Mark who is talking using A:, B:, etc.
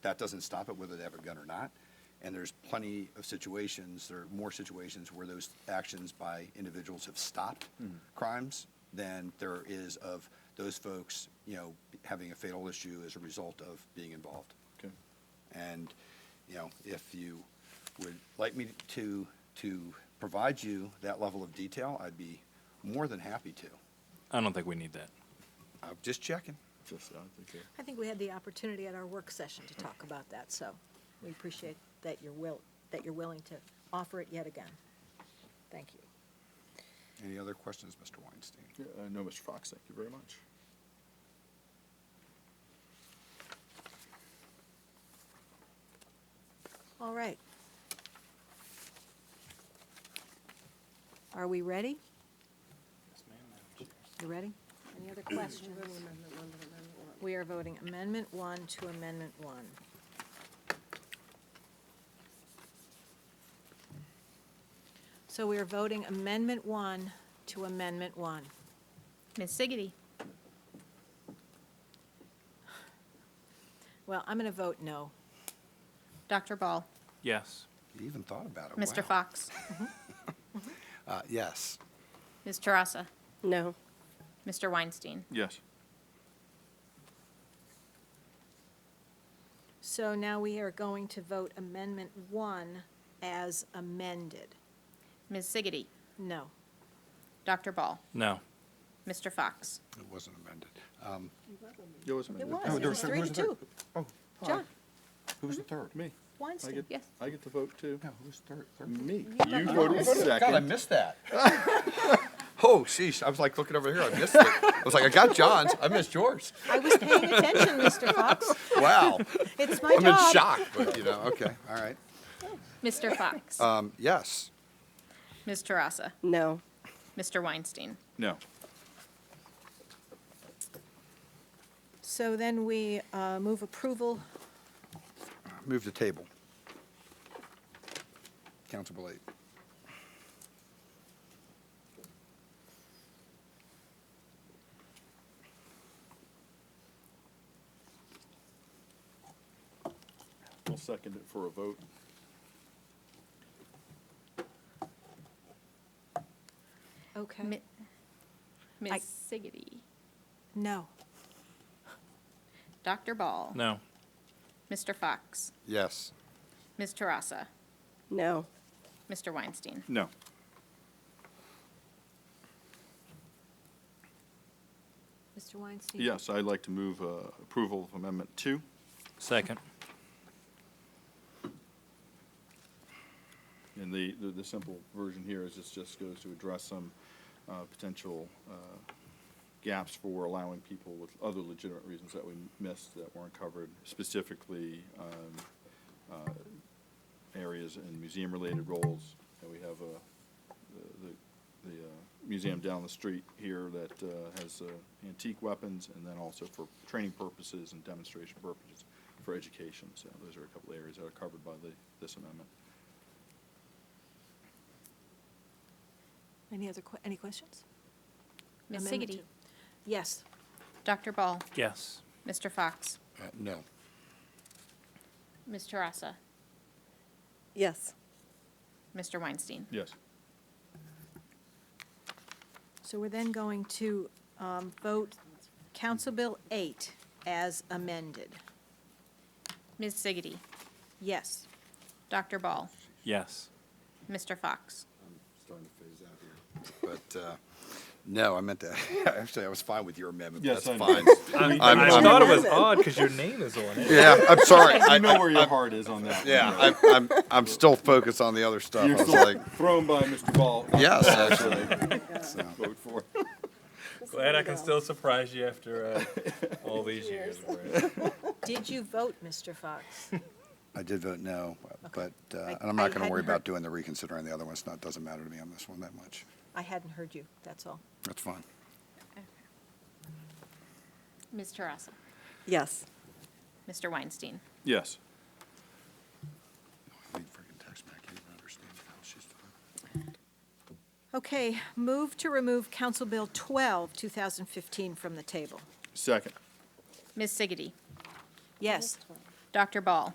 A: That doesn't stop it whether they have a gun or not. And there's plenty of situations, there are more situations where those actions by individuals have stopped crimes than there is of those folks, you know, having a fatal issue as a result of being involved.
B: Okay.
A: And, you know, if you would like me to, to provide you that level of detail, I'd be more than happy to.
C: I don't think we need that.
A: I'm just checking.
B: Just, I think, uh,
D: I think we had the opportunity at our work session to talk about that, so we appreciate that you're will, that you're willing to offer it yet again. Thank you.
A: Any other questions, Mr. Weinstein?
B: yeah, uh, no, Mr. Fox, thank you very much.
D: All right. Are we ready? You ready? Any other questions? We are voting Amendment One to Amendment One. So we are voting Amendment One to Amendment One.
E: Ms. Siggety.
D: Well, I'm going to vote no.
E: Dr. Ball.
C: Yes.
A: You even thought about it.
E: Mr.
A: Wow.
E: Fox.
A: Uh, yes.
E: Ms. Tarassa.
F: No.
E: Mr. Weinstein.
B: Yes.
D: So now we are going to vote Amendment One as amended.
E: Ms. Siggety.
D: No.
E: Dr. Ball.
C: No.
E: Mr. Fox.
A: It wasn't amended. Um,
B: It was amended.
D: was. It was three to two.
A: Oh,
D: John
A: who's the third?
B: Me. I
D: Weinstein.
B: get,
E: Yes.
B: I get to vote too.
A: No, who's third? third?
B: Me. You voted second.
A: missed that. Oh, sheesh, I was like looking over here, I missed it. I was like, I got John's, I missed yours.
D: I was paying attention, Mr. Fox.
A: Wow.
D: It's my
A: I'm in
D: job.
A: shock, but you know, okay, all right.
E: Mr. Fox.
A: Um, yes.
E: Ms. Tarassa.
F: No.
E: Mr. Weinstein.
B: No.
D: So then we uh, move approval.
A: Move to table. Council Bill 8.
B: I'll second it for a vote.
D: Okay.
E: Mi- Ms.
D: I-
E: Siggety.
D: No.
E: Dr. Ball.
C: No.
E: Mr. Fox.
A: Yes.
E: Ms. Tarassa.
F: No.
E: Mr. Weinstein.
B: No.
D: Mr. Weinstein?
B: Yes, I'd like to move uh, approval of Amendment Two.
C: Second.
B: And the, the- the simple version here is this just goes to address some uh, potential uh, gaps for allowing people with other legitimate reasons that we missed that weren't covered, specifically um, uh, areas in museum-related roles. And we have uh, the- the, the uh, museum down the street here that uh, has uh, antique weapons, and then also for training purposes and demonstration purposes for education. So those are a couple areas that are covered by the, this amendment.
D: Any other, que- any questions?
E: Ms.
D: Amendment
E: Siggety.
D: two. Yes.
E: Dr. Ball.
C: Yes.
E: Mr. Fox.
A: Uh, No.
E: Ms. Tarassa.
F: Yes.
E: Mr. Weinstein.
B: Yes.
D: So we're then going to um, vote Council Bill 8 as amended.
E: Ms. Siggety.
D: Yes.
E: Dr. Ball.
C: Yes.
E: Mr. Fox.
A: Starting to phase out here. But, uh, no, I meant to, actually, I was fine with your amendment, but
B: Yes,
A: that's
B: I
A: fine.
B: know.
A: I'm-
C: I
A: I'm-
C: thought it was odd because your name is on it.
A: Yeah, I'm sorry.
B: I
A: I-
B: know where your heart is on that.
A: Yeah,
B: one,
A: I'm, I'm, I'm still focused on the other stuff. I
B: You're
A: was
B: still
A: like,
B: thrown by Mr. Ball.
A: yes, actually.
B: Vote for.
C: Glad I can still surprise you after uh, all these years. Brad.
D: Did you vote, Mr. Fox?
A: I did vote no, but, uh,
D: I-
A: and I'm
D: I
A: not going to
D: hadn't
A: worry
D: heard-
A: about doing the reconsidering the other ones. Not, doesn't matter to me on this one that much.
D: I hadn't heard you, that's all.
A: That's fine.
E: Ms. Tarassa.
F: Yes.
E: Mr. Weinstein.
B: Yes.
A: Read freaking text back. I don't understand how she's
D: Okay, move to remove Council Bill 12, 2015 from the table.
B: Second.
E: Ms. Siggety.
D: Yes.
E: Dr. Ball?